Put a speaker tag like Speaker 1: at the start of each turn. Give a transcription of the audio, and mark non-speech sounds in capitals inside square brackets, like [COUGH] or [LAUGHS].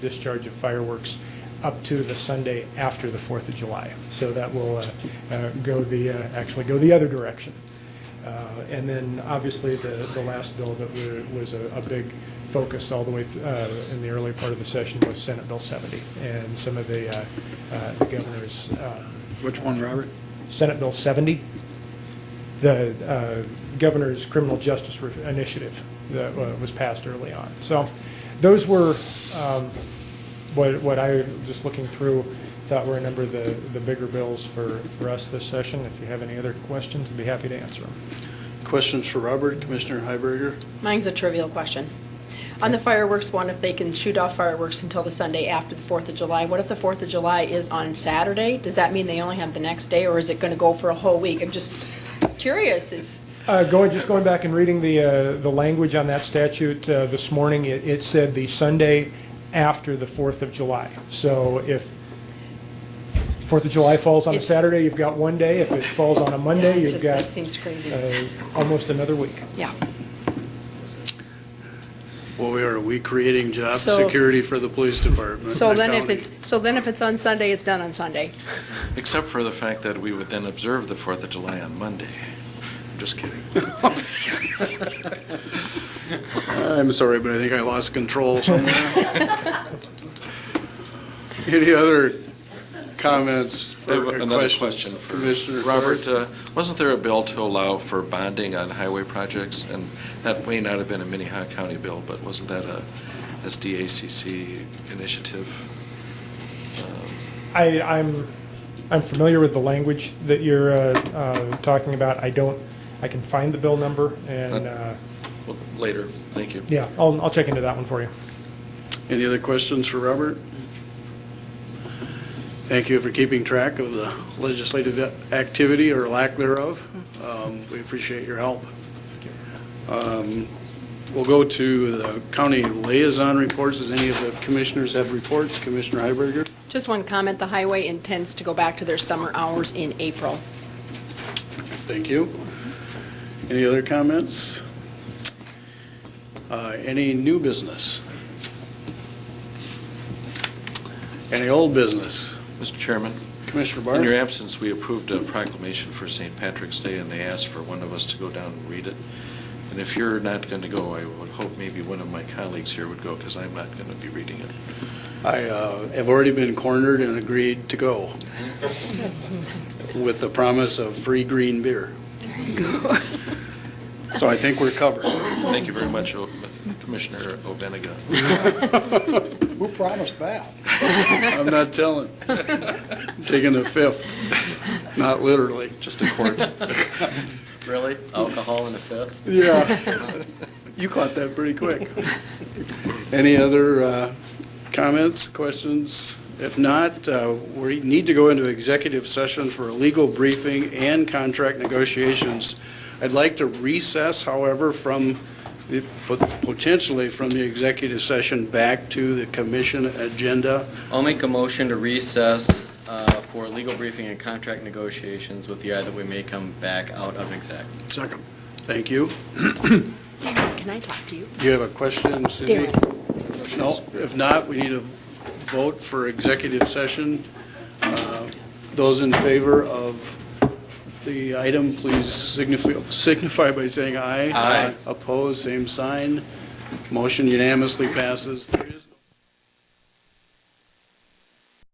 Speaker 1: discharge of fireworks up to the Sunday after the Fourth of July. So that will uh, uh, go the, uh, actually go the other direction. Uh, And then, obviously, the, the last bill that wa- was a, a big focus all the way th- uh, in the early part of the session was Senate Bill 70 and some of the uh, uh, the governor's um,
Speaker 2: Which one, Robert?
Speaker 1: Senate Bill 70, the uh, governor's criminal justice ref- initiative that uh, was passed early on. So those were um, what what I, just looking through, thought were a number of the the bigger bills for for us this session. If you have any other questions, I'd be happy to answer them.
Speaker 2: Questions for Robert, Commissioner Heiberger?
Speaker 3: Mine's a trivial question. On the fireworks one, if they can shoot off fireworks until the Sunday after the Fourth of July, what if the Fourth of July is on Saturday? Does that mean they only have the next day, or is it going to go for a whole week? I'm just curious, is,
Speaker 1: Uh, Going, just going back and reading the, uh, the language on that statute uh, this morning, it it said the Sunday after the 4th of July. So if 4th of July falls on a
Speaker 3: It's-
Speaker 1: Saturday, you've got one day. If it falls on a Monday,
Speaker 3: Yeah, it
Speaker 1: you've
Speaker 3: just-
Speaker 1: got
Speaker 3: that seems crazy.
Speaker 1: uh, almost another week.
Speaker 3: yeah.
Speaker 2: Boy, are we creating job
Speaker 3: So-
Speaker 2: security for the police department. and
Speaker 3: So
Speaker 2: the
Speaker 3: then if
Speaker 2: county.
Speaker 3: it's, so then if it's on Sunday, it's done on Sunday.
Speaker 4: Except for the fact that we would then observe the Fourth of July on Monday. I'm just kidding.
Speaker 2: I'm sorry, but I think I lost control somewhere.
Speaker 3: [LAUGHS]
Speaker 2: Any other comments
Speaker 4: I have
Speaker 2: or
Speaker 4: another question
Speaker 2: questions?
Speaker 4: for
Speaker 2: Commissioner
Speaker 4: Robert.
Speaker 2: Clark?
Speaker 4: uh, Wasn't there a bill to allow for bonding on highway projects? And that may not have been a Minnehaha County bill, but wasn't that a SDACC initiative?
Speaker 1: I, I'm, I'm familiar with the language that you're uh, uh, talking about. I don't, I can find the bill number and, uh,
Speaker 4: Well, Later, thank you.
Speaker 1: yeah, I'll, I'll check into that one for you.
Speaker 2: Any other questions for Robert? Thank you for keeping track of the legislative activity or lack thereof. Um, We appreciate your help. Um, We'll go to the county liaison reports. Does any of the commissioners have reports? Commissioner Heiberger?
Speaker 3: Just one comment, the highway intends to go back to their summer hours in April.
Speaker 2: Thank you. Any other comments? Uh, Any new business? Any old business?
Speaker 4: Mr. Chairman,
Speaker 2: Commissioner Barth?
Speaker 4: in your absence, we approved a proclamation for St. Patrick's Day, and they asked for one of us to go down and read it. And if you're not going to go, I would hope maybe one of my colleagues here would go, because I'm not going to be reading it.
Speaker 2: I uh, have already been cornered and agreed to go with the promise of free green beer. So I think we're covered.
Speaker 4: Thank you very much, O- Commissioner Obeniga.
Speaker 5: Who promised that?
Speaker 2: [LAUGHS] I'm
Speaker 5: [LAUGHS]
Speaker 2: not telling. Taking the fifth, not literally.
Speaker 4: Just a court.
Speaker 6: Really? Alcohol in the fifth?
Speaker 2: Yeah. You caught that pretty quick. Any other uh, comments, questions? If not, uh, we need to go into executive session for a legal briefing and contract negotiations. I'd like to recess, however, from, the- pot- potentially from the executive session back to the commission agenda.
Speaker 6: I'll make a motion to recess uh, for legal briefing and contract negotiations with the eye that we may come back out of exec.
Speaker 2: Second. Thank you.
Speaker 3: Darren, can I talk to you?
Speaker 2: Do you have a question, Cindy? No, if not, we need a vote for executive session. Uh, Those in favor of the item, please signify, signify by saying aye.
Speaker 6: Aye.
Speaker 2: Opposed, same sign. Motion unanimously passes. There is